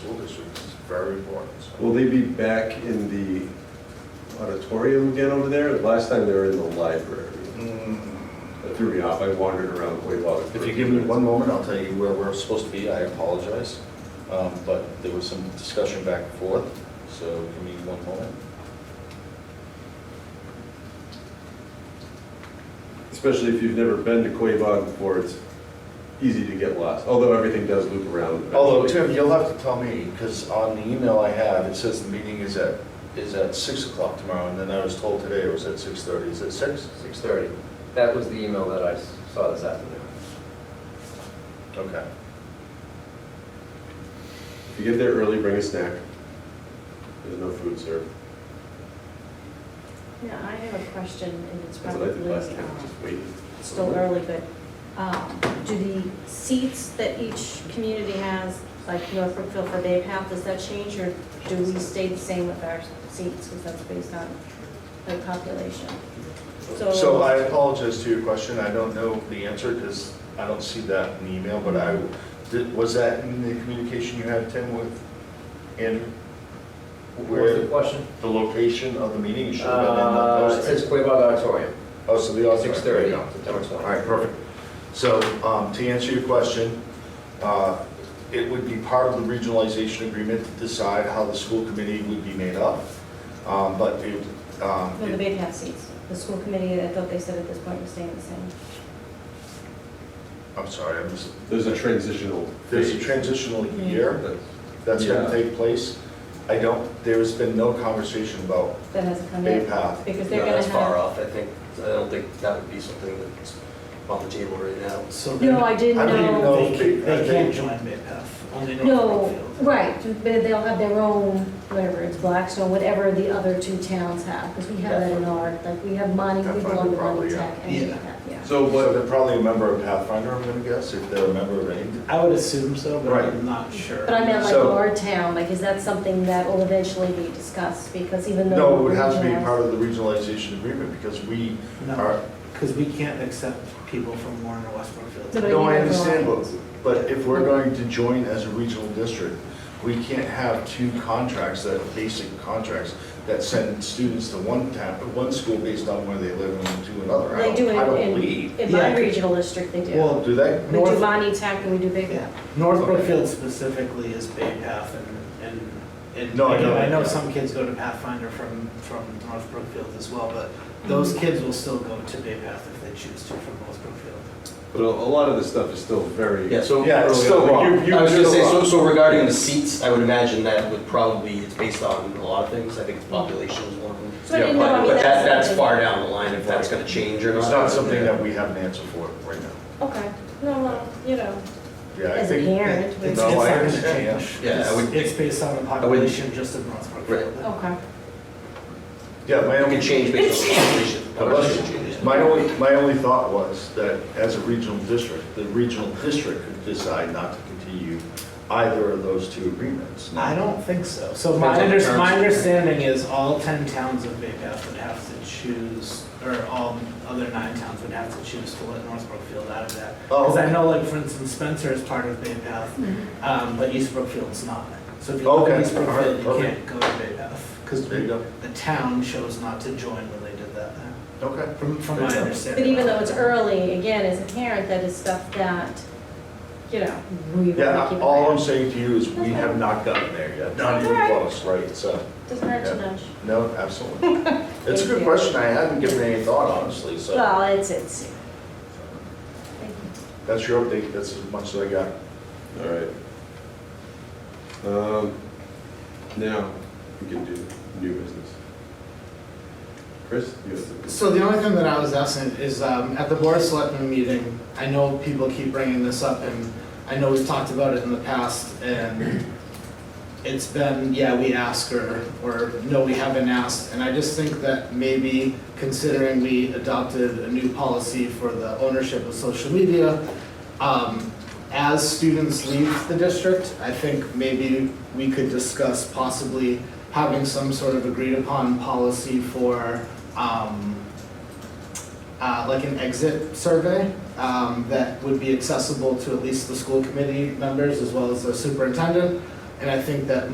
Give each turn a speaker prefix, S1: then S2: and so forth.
S1: very important, so.
S2: Will they be back in the auditorium again over there? Last time they were in the library. That threw me off, I wandered around way longer.
S1: Mm. If you give me one moment, I'll tell you where we're supposed to be, I apologize. Um, But there was some discussion back and forth, so give me one moment.
S2: Especially if you've never been to Quabog before, it's easy to get lost, although everything does loop around.
S1: Although,
S2: eventually.
S1: Tim, you'll have to tell me, because on the email I have, it says the meeting is at, is at 6 o'clock tomorrow, and then I was told today it was at 6:30. Is it 6?
S3: 6:30. That was the email that I s- saw this afternoon.
S1: Okay.
S2: If you get there early, bring a snack. There's no food served.
S4: Yeah, I have a question, and it's
S2: That's what I did
S4: probably
S2: last time,
S4: um,
S2: just waiting.
S4: still early, but um, do the seats that each community has, like Norfolk, Guilford, they have, does that change, or do we stay the same with our seats, because that's based on the population?
S1: So I
S4: So,
S1: apologize to your question, I don't know the answer, because I don't see that in the email, but I, did- was that in the communication you had, Tim, with, in,
S3: What was the
S1: where,
S3: question?
S1: the location of the meeting, you should have been in the
S3: Uh, It
S1: posting.
S3: says Quabog Auditorium,
S1: Oh, so the auditorium.
S3: 6:30,
S1: There you go.
S3: September 20.
S1: All right, perfect. So um, to answer your question, uh, it would be part of the regionalization agreement to decide how the school committee would be made up. Um, But it, um,
S4: no, the big half seats, the school committee, I thought they said at this point was staying the same.
S1: I'm sorry, I missed.
S2: There's a transitional
S1: There's a
S2: phase.
S1: transitional year
S2: That's-
S1: that's going
S2: Yeah.
S1: to take place. I don't, there's been no conversation about
S4: That hasn't come
S1: Bay
S4: yet,
S1: Path.
S4: because
S3: No,
S4: they're gonna
S3: that's far
S4: have.
S3: off, I think, I don't think that would be something that's on the table right now.
S5: So
S4: No, I
S5: then
S4: didn't
S1: I
S4: know.
S1: don't even know
S5: They can't,
S1: I
S5: they
S1: think-
S5: can't join MidPath, only North
S4: No,
S5: Brookfield.
S4: right, but they'll have their own, whatever, it's Blackstone, whatever the other two towns have, because we have that in our, like, we have money, we belong to Monty Tech and we
S5: Yeah.
S4: have- yeah.
S2: So
S1: So
S2: what,
S1: they're probably a member of Pathfinder, I'm going to guess, if they're a member of any.
S5: I would assume so, but
S1: Right.
S5: I'm not sure.
S4: But I meant like
S1: So-
S4: our town, like, is that something that will eventually be discussed, because even though.
S1: No, it would have to be
S4: regionals-
S1: part of the regionalization agreement because we are,
S5: No, because we can't accept people from Warren or West Brookfield.
S4: No, but
S1: No, I
S4: you
S1: understand,
S4: don't.
S1: but, but if we're going to join as a regional district, we can't have two contracts that, are basic contracts, that send students to one town, one school based on where they live and to another. I
S4: They do
S1: don't- I don't
S4: it
S1: believe.
S4: in, in my
S5: Yeah.
S4: regional district, they do.
S5: Well,
S1: Do they?
S4: We do
S5: North-
S4: Monty Tech and we do Big
S5: yeah,
S4: Path.
S5: North
S1: Okay.
S5: Brookfield specifically is Bay Path and, and, and
S1: No, I know
S5: I
S1: that,
S5: know
S1: yeah.
S5: some kids go to Pathfinder from, from North Brookfield as well, but
S4: Mm-hmm.
S5: those kids will still go to Bay Path if they choose to from West Brookfield.
S2: but a a lot of this stuff is still very.
S6: Yeah, so.
S1: Yeah, it's
S2: early
S1: still
S2: on. Like, you- you
S6: I was gonna
S2: still
S6: say, so,
S2: are.
S6: so regarding the seats, I would imagine that would probably, it's based on a lot of things, I think it's population is one of them.
S4: So I didn't know, I
S6: But
S4: mean,
S6: but that,
S4: that's-
S6: that's far down the line if that's gonna change or not.
S1: It's not something that we have an answer for right now.
S4: Okay, no, well, you know,
S1: Yeah, I
S4: as a
S1: think.
S4: parent, we-
S5: It's, it's
S1: No, I
S5: not gonna
S1: understand, yeah.
S5: change.
S6: Yeah, I
S5: It's-
S6: would-
S5: It's based on the
S6: wouldn't-
S5: population just of North Brookfield.
S4: okay.
S1: Yeah, my
S6: It
S1: only.
S6: can change based on population, population changes.
S1: My only, my only thought was that as a regional district, the regional district could decide not to continue either of those two agreements.
S5: I don't think so. So my,
S6: Depends on the
S5: under- my
S6: terms.
S5: understanding is all ten towns of Bay Path would have to choose, or all other nine towns would have to choose to let North Brookfield out of that.
S1: Oh.
S5: Because I know, like, for instance, Spencer is part of Bay Path,
S4: Mm-hmm.
S5: um, but East Brookfield's not. So if you live
S1: Okay.
S5: in East Brookfield, you
S1: All right,
S5: can't go to Bay Path, because
S1: There you
S5: the
S1: go.
S5: town chose not to join when they did that,
S1: Okay.
S5: from, from
S1: Good
S5: my
S1: to know.
S5: understanding.
S4: But even though it's early, again, as a parent, that is stuff that, you know, we want to
S1: Yeah,
S4: keep.
S1: all
S4: away.
S1: I'm saying to you is we have not gotten there yet, not even
S4: That's all
S1: close, right? So,
S4: Doesn't hurt to nudge.
S1: no, absolutely. It's a good
S4: you.
S1: question, I haven't given it any thought, honestly, so.
S4: Well, it's, it's. Thank you.
S1: That's your update, that's as much as I got.
S2: All right. Um, Now, we can do new business. Chris, you have something?
S5: So the only thing that I was asking is, um, at the Board of Selectmen meeting, I know people keep bringing this up, and I know we've talked about it in the past, and it's been, yeah, we ask, or, or no, we haven't asked, and I just think that maybe considering we adopted a new policy for the ownership of social media, um, as students leave the district, I think maybe we could discuss possibly having some sort of agreed upon policy for, um, uh, like an exit survey, um, that would be accessible to at least the school committee members as well as the superintendent. And I think that